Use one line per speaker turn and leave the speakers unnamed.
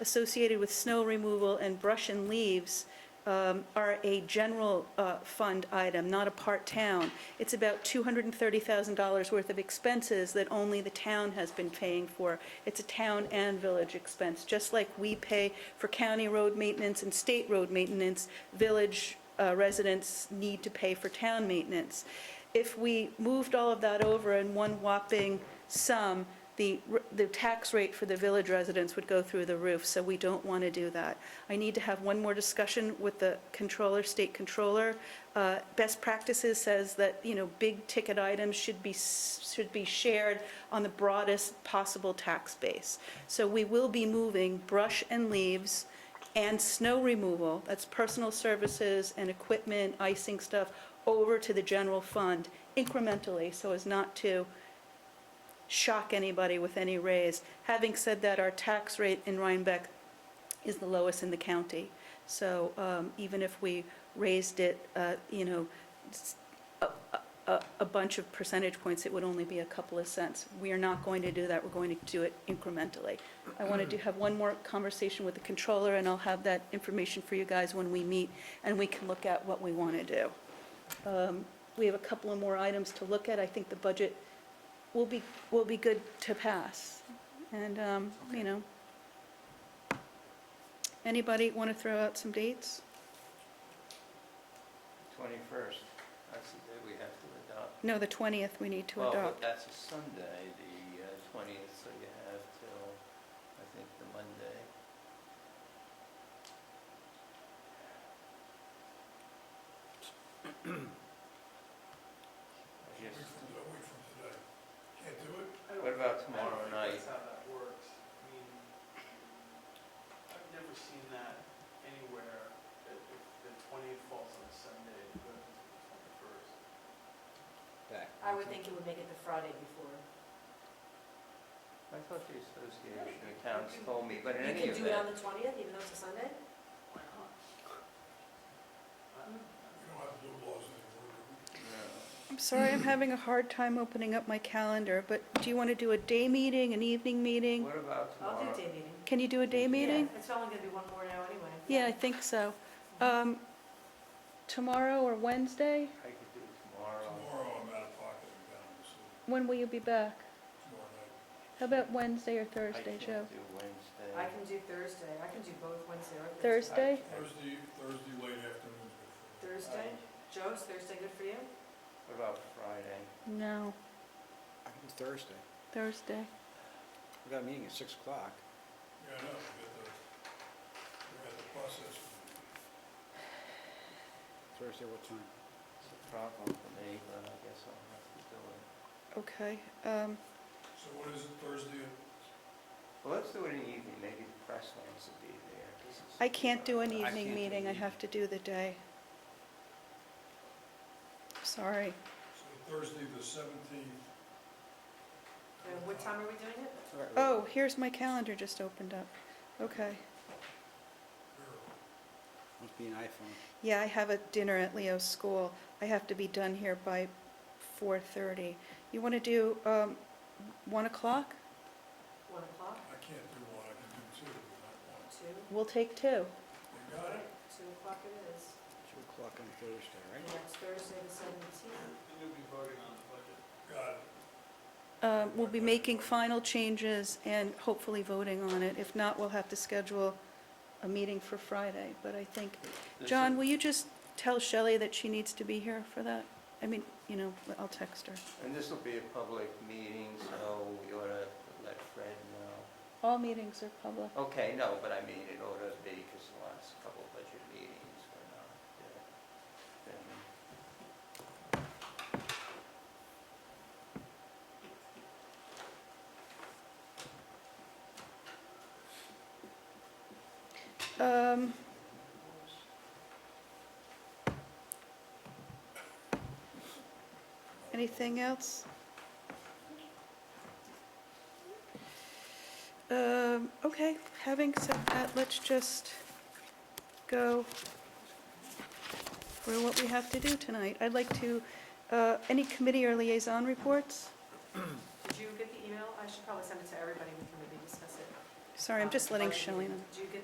associated with snow removal and brush and leaves um, are a general uh, fund item, not a part town. It's about $230,000 worth of expenses that only the town has been paying for. It's a town and village expense, just like we pay for county road maintenance and state road maintenance, village uh, residents need to pay for town maintenance. If we moved all of that over in one whopping sum, the, r- the tax rate for the village residents would go through the roof, so we don't want to do that. I need to have one more discussion with the controller, state controller. Uh, Best practices says that, you know, big-ticket items should be, s- should be shared on the broadest possible tax base. So we will be moving brush and leaves and snow removal, that's personal services and equipment, icing stuff, over to the general fund incrementally, so as not to shock anybody with any raise. Having said that, our tax rate in Rhinebeck is the lowest in the county. So um, even if we raised it, uh, you know, s- a- a a bunch of percentage points, it would only be a couple of cents. We are not going to do that, we're going to do it incrementally. I want to have one more conversation with the controller, and I'll have that information for you guys when we meet, and we can look at what we want to do. Um, We have a couple of more items to look at. I think the budget will be, will be good to pass. And, um, you know, anybody want to throw out some dates?
21st, that's the day we have to adopt.
No, the 20th we need to
Well, but
adopt.
that's a Sunday, the uh, 20th, so you have till, I think, the Monday. I
Yes.
guess-
A week from today. Can't do it?
What about tomorrow
I
night?
don't think that's how that works. I mean, I've never seen that anywhere, that if the twentieth falls on a Sunday, it goes to the twenty-first.
I would think it would make it the Friday before.
I thought the Association of Towns told me, but in any
You could do it on
event,
the twentieth, even though it's a Sunday?
Why not? I don't
We don't have to do laws anymore. do we?
no.
I'm sorry, I'm having a hard time opening up my calendar, but do you want to do a day meeting, an evening meeting?
What about
I'll do
tomorrow?
day meeting.
Can you do a day meeting?
Yeah, It's only gonna be one more now anyway.
Yeah, I think so. Um, Tomorrow or Wednesday?
I could do tomorrow.
Tomorrow, I'm out of pocket and down in the city,
When will you be back?
tomorrow night.
How about Wednesday or
I
Thursday,
can't
Joe?
do Wednesday.
I can do Thursday, I can do both Wednesday or Thursday.
Thursday?
Thursday, Thursday late afternoon. is good for me.
Thursday,
I-
Joe, is Thursday good for you?
What about Friday?
No,
I can do Thursday.
Thursday.
We got a meeting at six o'clock.
Yeah, I know, we got the, we got the process.
Thursday, what time?
It's a problem for me, but I guess I'll have to do it.
Okay, um,
So what is it, Thursday?
Well, let's do it in the evening, maybe the press wants to be there. This is-
I can't do an
I can't
evening
do
meeting, I
evening.
have to do the day. Sorry.
So Thursday the seventeenth.
And what time are we doing it?
Oh, here's my calendar just opened up. Okay. Oh.
Must be an iPhone.
Yeah, I have a dinner at Leo's school. I have to be done here by 4:30. You want to do um, 1 o'clock?
One o'clock,
I can't do one, I can do two, but not one.
two,
We'll take two.
You got it?
two o'clock it is.
Two o'clock on Thursday,
And
right?
that's Thursday the seventeenth.
know. And you'll be voting on the budget.
Got it.
Um, We'll be making final changes and hopefully voting on it. If not, we'll have to schedule a meeting for Friday, but I think,
This
John,
is-
will you just tell Shelley that she needs to be here for that? I mean, you know, I'll text her.
And this will be a public meeting, so we ought to let Fred know.
All meetings are public.
Okay, no, but I mean, it ought to be, because the last couple of budget meetings were not, uh, been-
Um, Anything else? Um, okay, having said that, let's just go through what we have to do tonight. I'd like to, uh, any committee or liaison reports?
Did you get the email? I should probably send it Um, to everybody, we can maybe discuss it.
Sorry, I'm just letting
Like,
Shelley know.
Do you get